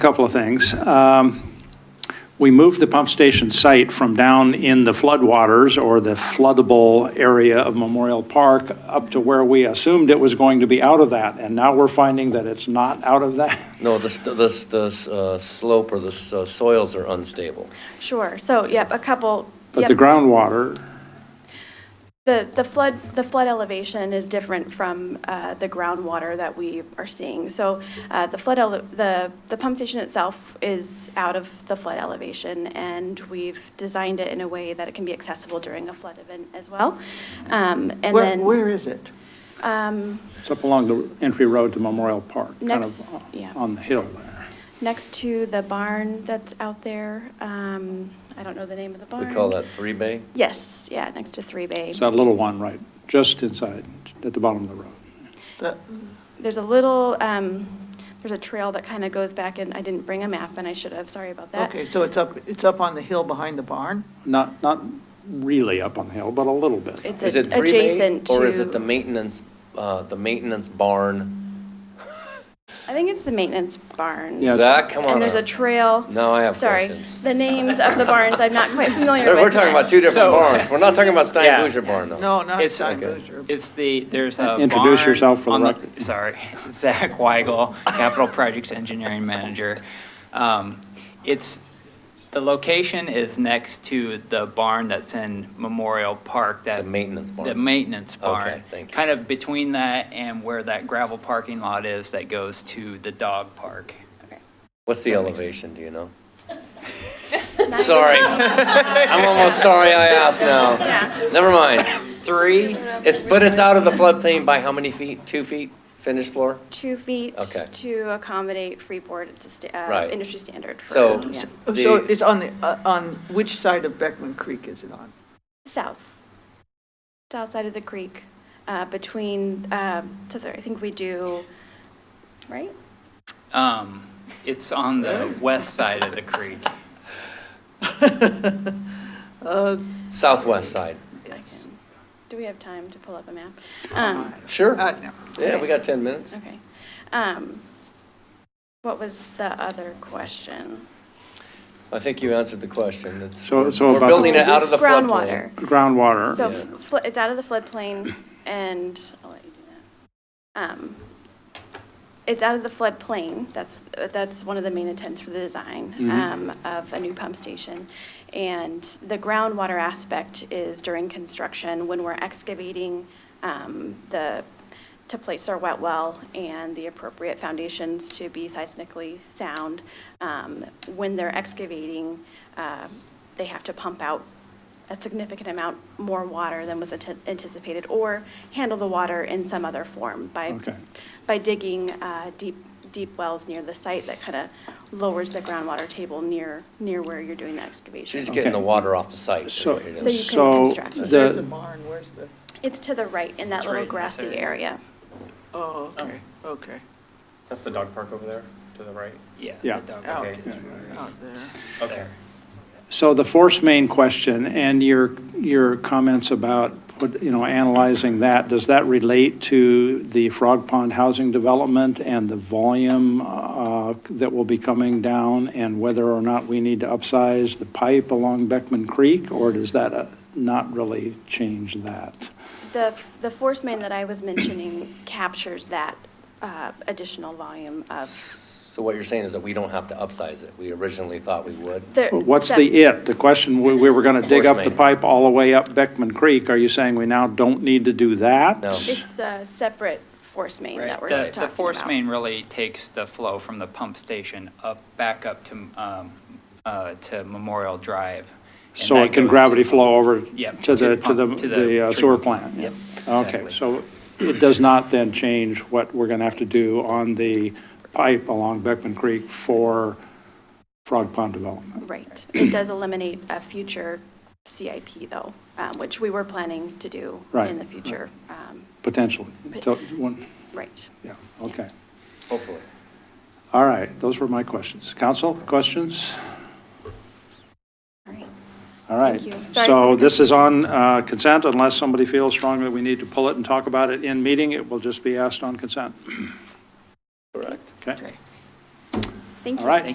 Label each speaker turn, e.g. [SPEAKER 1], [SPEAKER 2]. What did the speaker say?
[SPEAKER 1] Couple of things. Um, We moved the pump station site from down in the floodwaters or the floodable area of Memorial Park up to where we assumed it was going to be out of that, and now we're finding that it's not out of that.
[SPEAKER 2] No, the, st- the, s- the s- uh, slope or the s- uh, soils are unstable.
[SPEAKER 3] Sure, so, yep, a couple,
[SPEAKER 1] But
[SPEAKER 3] yep.
[SPEAKER 1] the groundwater,
[SPEAKER 3] The, the flood, the flood elevation is different from uh, the groundwater that we are seeing. So uh, the flood, ele- the, the pump station itself is out of the flood elevation, and we've designed it in a way that it can be accessible during a flood event as well. Um, And
[SPEAKER 4] Where,
[SPEAKER 3] then,
[SPEAKER 4] where is it?
[SPEAKER 1] it's up along the entry road to Memorial Park, kind
[SPEAKER 3] Next-
[SPEAKER 1] of
[SPEAKER 3] yeah.
[SPEAKER 1] on the hill there.
[SPEAKER 3] next to the barn that's out there, um, I don't know the name of the
[SPEAKER 2] We
[SPEAKER 3] barn.
[SPEAKER 2] call that three bay?
[SPEAKER 3] Yes, yeah, next to Three Bay.
[SPEAKER 1] It's that little one right, just inside, at the bottom of the road.
[SPEAKER 4] That-
[SPEAKER 3] There's a little, um, there's a trail that kind of goes back, and I didn't bring a map, and I should have, sorry about that.
[SPEAKER 4] Okay, so it's up, it's up on the hill behind the barn?
[SPEAKER 1] Not, not really up on the hill, but a little bit.
[SPEAKER 3] It's
[SPEAKER 2] Is
[SPEAKER 3] a-
[SPEAKER 2] it three bay?
[SPEAKER 3] adjacent to.
[SPEAKER 2] Or is it the maintenance, uh, the maintenance barn?
[SPEAKER 3] I think it's the maintenance barns.
[SPEAKER 1] Yeah,
[SPEAKER 2] Zach, come on.
[SPEAKER 3] And there's a
[SPEAKER 2] up.
[SPEAKER 3] trail.
[SPEAKER 2] Now I have questions.
[SPEAKER 3] Sorry, the names of the barns, I'm not quite familiar with.
[SPEAKER 2] We're talking about two different
[SPEAKER 5] So-
[SPEAKER 2] barns. We're not talking about Stein
[SPEAKER 5] Yeah.
[SPEAKER 2] Boucher barn though.
[SPEAKER 4] No, not
[SPEAKER 5] It's-
[SPEAKER 4] Steinbrucher.
[SPEAKER 5] It's the, there's a
[SPEAKER 1] Introduce
[SPEAKER 5] barn
[SPEAKER 1] yourself for the
[SPEAKER 5] on
[SPEAKER 1] record.
[SPEAKER 5] Sorry, Zach Weigel, Capital Projects Engineering Manager. Um, It's, the location is next to the barn that's in Memorial Park that.
[SPEAKER 2] The maintenance barn.
[SPEAKER 5] The maintenance barn.
[SPEAKER 2] Okay, thank you.
[SPEAKER 5] Kind of between that and where that gravel parking lot is that goes to the dog park.
[SPEAKER 2] What's the elevation, do you know?
[SPEAKER 3] Not-
[SPEAKER 2] Sorry. I'm almost sorry I asked now.
[SPEAKER 3] Yeah,
[SPEAKER 2] Never mind.
[SPEAKER 5] Three,
[SPEAKER 2] It's, but it's out of the floodplain by how many feet? Two feet finished floor?
[SPEAKER 3] two feet
[SPEAKER 2] Okay.
[SPEAKER 3] to accommodate freeboard, it's a sta- uh,
[SPEAKER 2] Right.
[SPEAKER 3] industry standard for.
[SPEAKER 2] So-
[SPEAKER 3] yeah.
[SPEAKER 4] Oh,
[SPEAKER 2] The-
[SPEAKER 4] So it's on the, uh, on which side of Beckman Creek is it on?
[SPEAKER 3] South, south side of the creek, uh, between, uh, so there, I think we do, right?
[SPEAKER 5] um, it's on the west side of the creek.
[SPEAKER 2] Southwest side.
[SPEAKER 5] It's-
[SPEAKER 3] hmm, Do we have time to pull up a map? Um,
[SPEAKER 2] Sure.
[SPEAKER 4] Uh, no.
[SPEAKER 2] Yeah, we got 10 minutes.
[SPEAKER 3] Okay. Um, What was the other question?
[SPEAKER 2] I think you answered the question. It's,
[SPEAKER 1] So-
[SPEAKER 2] we're
[SPEAKER 1] so about the-
[SPEAKER 2] building it out of the floodplain.
[SPEAKER 3] Groundwater.
[SPEAKER 1] Groundwater.
[SPEAKER 3] So
[SPEAKER 2] Yeah.
[SPEAKER 3] fl- it's out of the floodplain and, I'll let you do that. Um, It's out of the floodplain, that's, uh, that's one of the main intents for the design um, of a new pump station. And the groundwater aspect is during construction, when we're excavating um, the, to place our wet well and the appropriate foundations to be seismically sound. Um, When they're excavating, uh, they have to pump out a significant amount more water than was ante- anticipated, or handle the water in some other form by,
[SPEAKER 1] Okay.
[SPEAKER 3] by digging uh, deep, deep wells near the site that kind of lowers the groundwater table near, near where you're doing the excavation.
[SPEAKER 2] She's just getting the water off the site. is
[SPEAKER 1] So,
[SPEAKER 2] what it
[SPEAKER 3] So you
[SPEAKER 2] is.
[SPEAKER 3] can
[SPEAKER 1] so
[SPEAKER 3] construct.
[SPEAKER 4] There's a
[SPEAKER 1] the,
[SPEAKER 4] barn, where's the,
[SPEAKER 3] It's to the right in that
[SPEAKER 5] It's
[SPEAKER 3] little
[SPEAKER 5] right in this
[SPEAKER 3] grassy
[SPEAKER 5] area.
[SPEAKER 3] area.
[SPEAKER 4] oh, okay, okay,
[SPEAKER 6] That's the dog park over there, to the right.
[SPEAKER 5] Yeah. the
[SPEAKER 1] Yeah.
[SPEAKER 5] dog
[SPEAKER 4] Out.
[SPEAKER 5] park.
[SPEAKER 4] out there.
[SPEAKER 6] Okay.
[SPEAKER 1] so the force main question and your, your comments about, what, you know, analyzing that, does that relate to the Frog Pond housing development and the volume uh, that will be coming down and whether or not we need to upsize the pipe along Beckman Creek? Or does that uh, not really change that?
[SPEAKER 3] The, the force main that I was mentioning captures that uh, additional volume of.
[SPEAKER 2] So what you're saying is that we don't have to upsize it. We originally thought we would.
[SPEAKER 3] the-
[SPEAKER 1] What's
[SPEAKER 3] so-
[SPEAKER 1] the it? The question, we we were going to dig
[SPEAKER 2] Force
[SPEAKER 1] up the
[SPEAKER 2] main.
[SPEAKER 1] pipe all the way up Beckman Creek. Are you saying we now don't need to do that?
[SPEAKER 2] No.
[SPEAKER 3] It's a separate force main
[SPEAKER 5] Right,
[SPEAKER 3] that we're
[SPEAKER 5] the-
[SPEAKER 3] talking about.
[SPEAKER 5] The force main really takes the flow from the pump station up, back up to, um, uh, to Memorial Drive. and
[SPEAKER 1] So it
[SPEAKER 5] that
[SPEAKER 1] can
[SPEAKER 5] goes to-
[SPEAKER 1] gravity flow over
[SPEAKER 5] Yep,
[SPEAKER 1] to the, to the
[SPEAKER 5] pump-
[SPEAKER 1] the uh, sewer
[SPEAKER 5] treatment.
[SPEAKER 1] plant?
[SPEAKER 5] Yep.
[SPEAKER 1] Okay,
[SPEAKER 2] exactly.
[SPEAKER 1] so it does not then change what we're going to have to do on the pipe along Beckman Creek for Frog Pond development?
[SPEAKER 3] Right. It does eliminate a future CIP, though, um, which we were planning to do
[SPEAKER 1] Right,
[SPEAKER 3] in the future. Um,
[SPEAKER 1] Potentially. So, one-
[SPEAKER 3] Right.
[SPEAKER 1] Yeah, okay.
[SPEAKER 2] Hopefully.
[SPEAKER 1] All right, those were my questions. Council, questions?
[SPEAKER 3] All right.
[SPEAKER 1] All right.
[SPEAKER 3] Thank you. Sorry for
[SPEAKER 1] So
[SPEAKER 3] the-
[SPEAKER 1] this is on uh, consent unless somebody feels strongly we need to pull it and talk about it in meeting. It will just be asked on consent.
[SPEAKER 2] Correct.
[SPEAKER 1] Okay?
[SPEAKER 3] Thank
[SPEAKER 1] All
[SPEAKER 3] you.
[SPEAKER 1] right.